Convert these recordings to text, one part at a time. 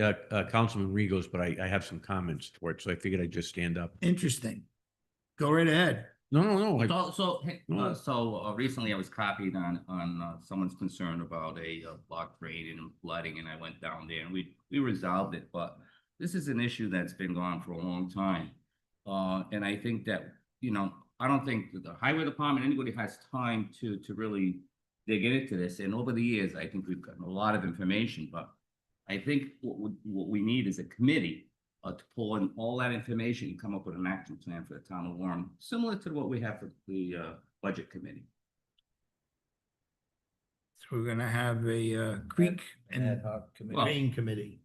uh, uh, Councilman Regos, but I, I have some comments for it, so I figured I'd just stand up. Interesting. Go right ahead. No, no, no, I- So, so, hey, Go uh, on. so uh, recently I was copied on, on uh, someone's concern about a uh, block drain and flooding, and I went down there and we, we resolved it, but this is an issue that's been gone for a long time. Uh, and I think that, you know, I don't think that the highway department, anybody has time to, to really dig into this, and over the years, I think we've gotten a lot of information, but I think what, we- what we need is a committee uh, to pull in all that information and come up with an action plan for the town of Warren, similar to what we have for the, uh, budget committee. So we're gonna have a uh, creek and hoc Well- Rain committee.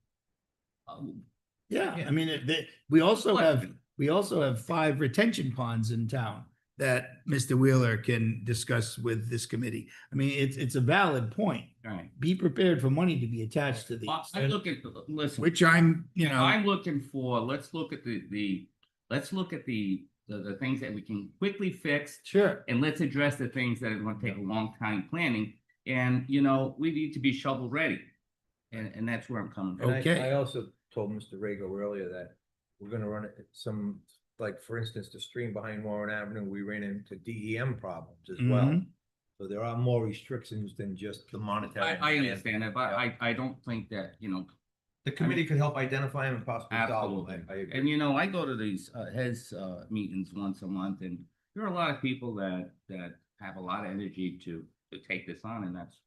Um, Yeah, I Yeah. mean, it- they, we also What? have, we also have five retention ponds in town that Mr. Wheeler can discuss with this committee. I mean, it's, it's a valid point. All right, Be prepared for money to be attached to I- I'm these. looking, listen, Which I'm, you know, I'm looking for, let's look at the, the, let's look at the, the, the things that we can quickly fix Sure. and let's address the things that are gonna take a long time planning. And, you know, we need to be shovel ready. And, and that's where I'm coming And from. I- Okay. I also told Mr. Rego earlier that we're gonna run it- some, like, for instance, the stream behind Warren Avenue, we ran into DEM problems as well. Mm-hmm. So there are more restrictions than just the monetary. I, I understand that, but I, I don't think that, you know, The committee could help identify them and possibly solve them. I- I Absolutely. agree. And you know, I go to these uh heads uh meetings once a month and there are a lot of people that that have a lot of energy to to take this on and that's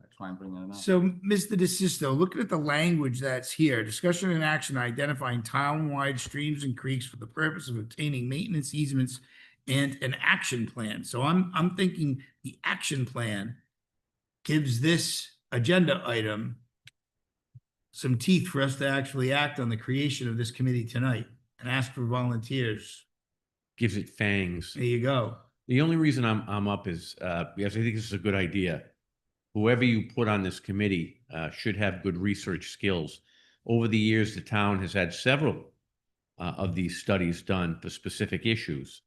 that's why I'm bringing it up. so Mr. DeSisto, looking at the language that's here, discussion and action identifying town-wide streams and creeks for the purpose of obtaining maintenance easements and an action plan. So I'm, I'm thinking the action plan gives this agenda item some teeth for us to actually act on the creation of this committee tonight and ask for volunteers. gives it fangs. There you go. The only reason I'm, I'm up is, uh, because I think this is a good idea. Whoever you put on this committee, uh, should have good research skills. Over the years, the town has had several, uh, of these studies done for specific issues.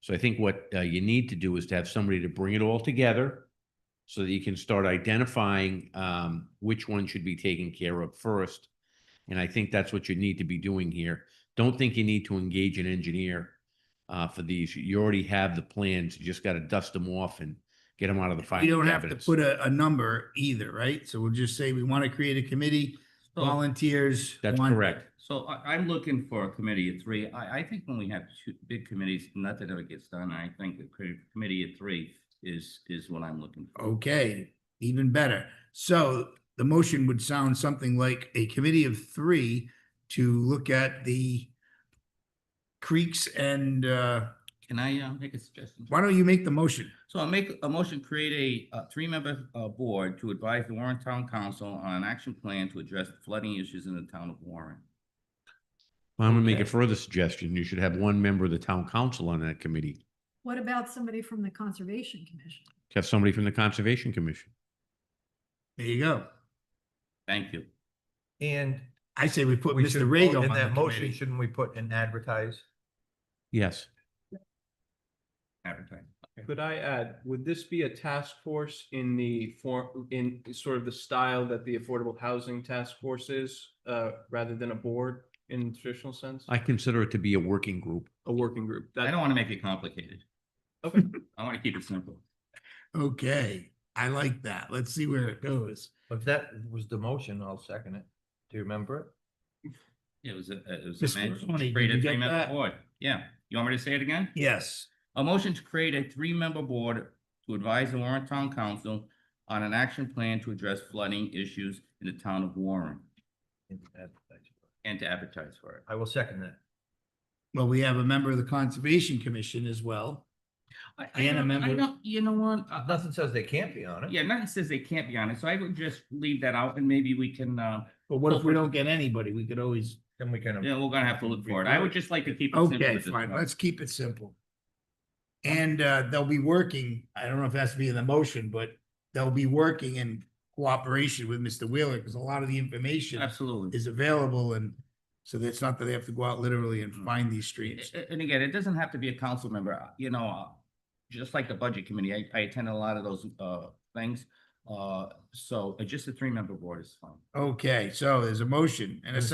So I think what, uh, you need to do is to have somebody to bring it all together so that you can start identifying, um, which one should be taken care of first. And I think that's what you need to be doing here. Don't think you need to engage an engineer uh, for these. You already have the plans. You just got to dust them off and get them out of the We final don't have to cabinets. put a, a number either, right? So we'll just say we want to create a committee, So- volunteers. Oh. That's one- correct. So I I'm looking for a committee of three. I I think when we have two big committees, nothing ever gets done. I think the cre- committee of three is is what I'm looking for. Okay, even better. So the motion would sound something like a committee of three to look at the creeks and, uh, Can I uh make a suggestion? why don't you make the motion? So I make a motion, to create a, uh three-member, uh, board to advise the Warren Town Council on an action plan to address flooding issues in the town of Warren. I'm going to make a further suggestion. You should have one member of the town council on that committee. What about somebody from the Conservation Commission? Have somebody from the Conservation Commission. There you go. Thank you. And I say we put we Mr. should, Rego vote on in the that motion, committee. shouldn't we put and advertise? Yes. Advertising. Could I add, would this be a task force in the form, in sort of the style that the Affordable Housing Task Force is, uh, rather than a board in traditional sense? I consider it to be a working group. A working group? I That, don't want to make it complicated. okay, I want to keep it simple. Okay, I like that. Let's see where it goes. If that was the motion, I'll second it. Do you remember it? It was a, it was Mr. a man, Maroney, did create you a get three-member that? board. Yeah. You want me to say it again? Yes, A motion to create a three-member board to advise the Warren Town Council on an action plan to address flooding issues in the town of Warren And advertise. and to advertise for it. I will second that. well, we have a member of the Conservation Commission as well. I- I And a don't- I member- don't- You know what? I- I- Nothing says they can't be on it. Uh-huh. Yeah, nothing says they can't be honest. So I would just leave that out and maybe we can, uh, But what if we don't get anybody? We could always, Then we can. yeah, we're gonna have to look for it. I would just like to keep. it simple okay, at this fine, point. let's keep it simple. And uh, they'll be working, I don't know if that's to be in the motion, but they'll be working in cooperation with Mr. Wheeler because a lot of the information Absolutely. is available and so that's not that they have to go out literally and Mm. find these A- streets. a- And again, it doesn't have to be a council member, uh, you know, uh, just like the budget committee, I, I attend a lot of those, uh, things. Uh, so uh, just a three-member board is fine. Okay, so there's a motion and a And a second.